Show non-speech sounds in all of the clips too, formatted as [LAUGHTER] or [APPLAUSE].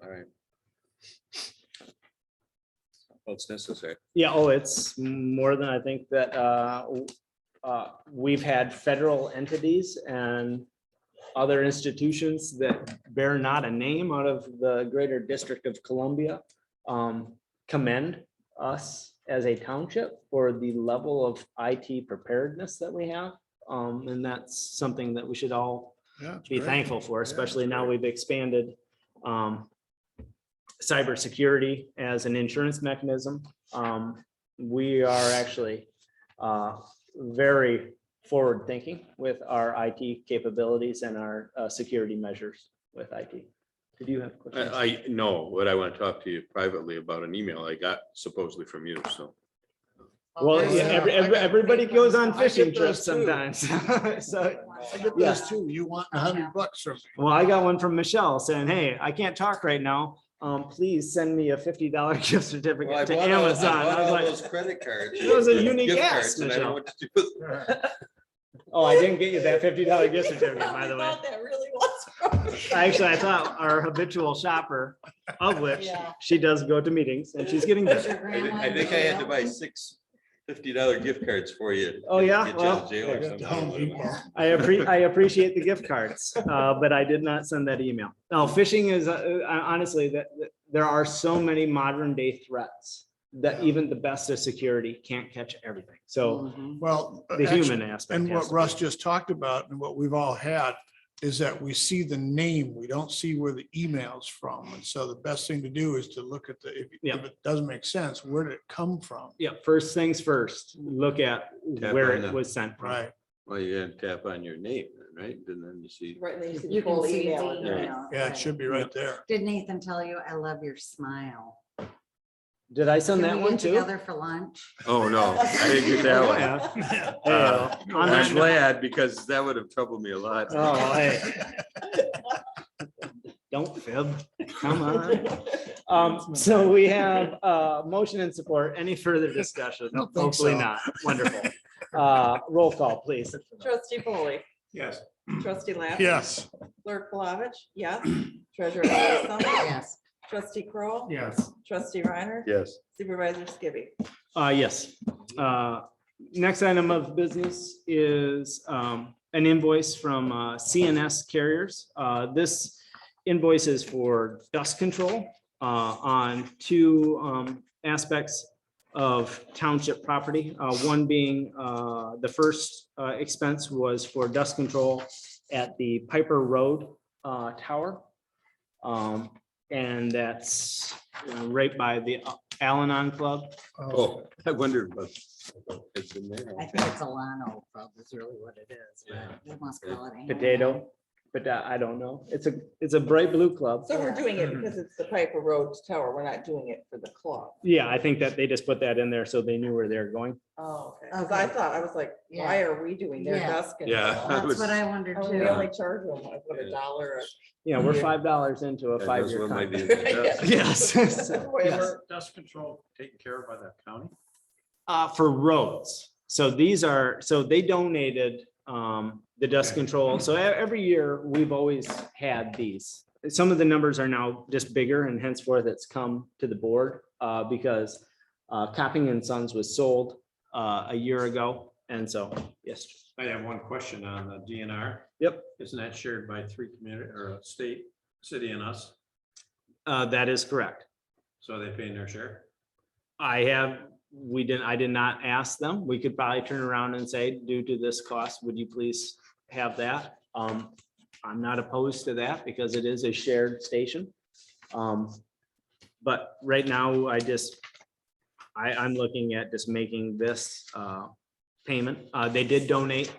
right. Well, Oh, it's necessary. Yeah, oh, it's more than I think that uh, w- uh, we've had federal entities and other institutions that bear not a name out of the greater District of Columbia um, commend us as a township for the level of IT preparedness that we have. Um, And that's something that we should all Yeah. it's be great. thankful for, Yeah, especially now we've expanded um, cybersecurity as an insurance mechanism. Um, We are actually uh, very forward-thinking with our IT capabilities and our uh, security measures with IT. Did you have? I, questions? I know what I want to talk to you privately about an email I got supposedly from you, so. Well, yeah, Okay, yeah, every- I every- got- everybody goes on I get fishing trips those too. sometimes. So, I get Yeah. those too. You want a hundred bucks from me. [LAUGHS] well, I got one from Michelle saying, hey, I can't talk right now. Um, Please send me a fifty dollar [LAUGHS] gift certificate to Amazon. I was like, Credit cards. [LAUGHS] Those are unique Gift ass, cards, and I don't Michelle. know what to do with them. Oh, I didn't get you that fifty dollar [LAUGHS] gift certificate, by [LAUGHS] the way. That really was. Actually, I thought our habitual shopper, of which Yeah. she does go to meetings and she's getting better. I thi- I think I had to buy six fifty dollar gift cards for you. Oh, to yeah? get you out of Well, jail or Yeah, something. Home Depot. I appre- I appreciate the gift cards, uh, but I did not send that email. No, phishing is, uh, uh, honestly, that, that- there are so many modern day threats that even the best of security can't catch everything. So Well. uh, the actually- human aspect. And has what to be- Russ just talked about and what we've all had is that we see the name, we don't see where the email's from. And so the best thing to do is to look at the, if Yeah. if it doesn't make sense, where did it come from? Yeah, first things first, look at Tap where on it the- was sent from. Right, Well, you gotta tap on your name, right? And then you [LAUGHS] see. Right, and then you see the You can full see the email in there. email. yeah, it should be right there. Did Nathan tell you, I love your smile? Did I send Can that we one get too? Oh, Together for lunch? Oh, no, I didn't get that one. [LAUGHS] Yeah. Uh, Hey, on that I'm glad because that would have troubled me a lot. Oh, hey. Don't fib, come on. Um, so we have, uh, motion and support, any further discussion? Don't think Hopefully so. not, wonderful. Uh, roll call, please. Trustee Foley, Yes. trustee Lappin. Yes. Clerk Flavich, [CLEARS THROAT] yes. Treasurer Ellery Summers, Yes. trustee Kroll, Yes. trustee Reiner, Yes. supervisor Skibby. Uh, yes. Uh, Next item of business is um, an invoice from uh, CNS Carriers. Uh, This invoice is for dust control uh, on two um, aspects of township property. Uh, One being, uh, the first uh, expense was for dust control at the Piper Road uh, Tower. Um, And that's uh, right by the Al-Anon Club. Oh, [LAUGHS] I wondered. about- it's in there. I think it's Alano Club is really what it is. but Yeah. They must call it. anything. potato, but uh, I don't know. It's a, it's a bright blue club. So we're doing it because it's the Piper Road Tower. We're not doing it for the club. Yeah, I think that they just put that in there so they knew where they're going. Oh, okay. 'Cause I Okay. thought, I was like, why are we doing their Yeah. desk? and- Yeah. [LAUGHS] I That's was- what I wondered Oh, We too. only charge them like what, a dollar. or- Yeah, we're Yeah. five dollars into a Yeah, five-year those one might be in contract. [LAUGHS] the [LAUGHS] dust. Yes. Whatever. Dust control taken care of by the county? Uh, for roads. So these are, so they donated um, the dust control. So e- every year, we've always had these. Some of the numbers are now just bigger and henceforth it's come to the board uh, because uh, Copping and Sons was sold uh, a year ago. And so, yes, I have one question on the DNR. Yep. Isn't that shared by three community or a state, city and us? uh, that is correct. So are they paying their share? I have, we didn't, I did not ask them. We could probably turn around and say, due to this cost, would you please have that? Um, I'm not opposed to that because it is a shared station. Um, but right now I just, I, I'm looking at just making this, uh, payment. Uh, they did donate,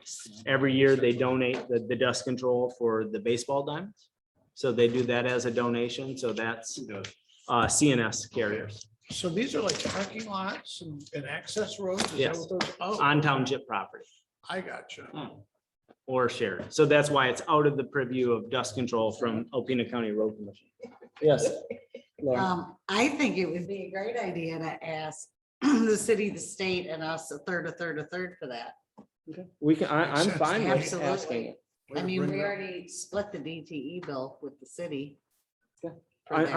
every year they donate the, the dust control for the baseball diamonds. So they do that as a donation. So that's, Who does? uh, CNS carriers So these are like parking lots and, and access roads? Is that Yes. what those? Oh, on township property. I got Hmm. you. or shared. So that's why it's out of the purview of dust control from Alpena County Road Commission. [LAUGHS] Yes. Um, I think it would be a great idea to ask [CLEARS THROAT] the city, the state and us a third, a third, a third for that. We can, I, I'm fine with asking. Absolutely. Way I to mean, bring it up. we E already split the DTE bill with the city. Yeah. for I- that.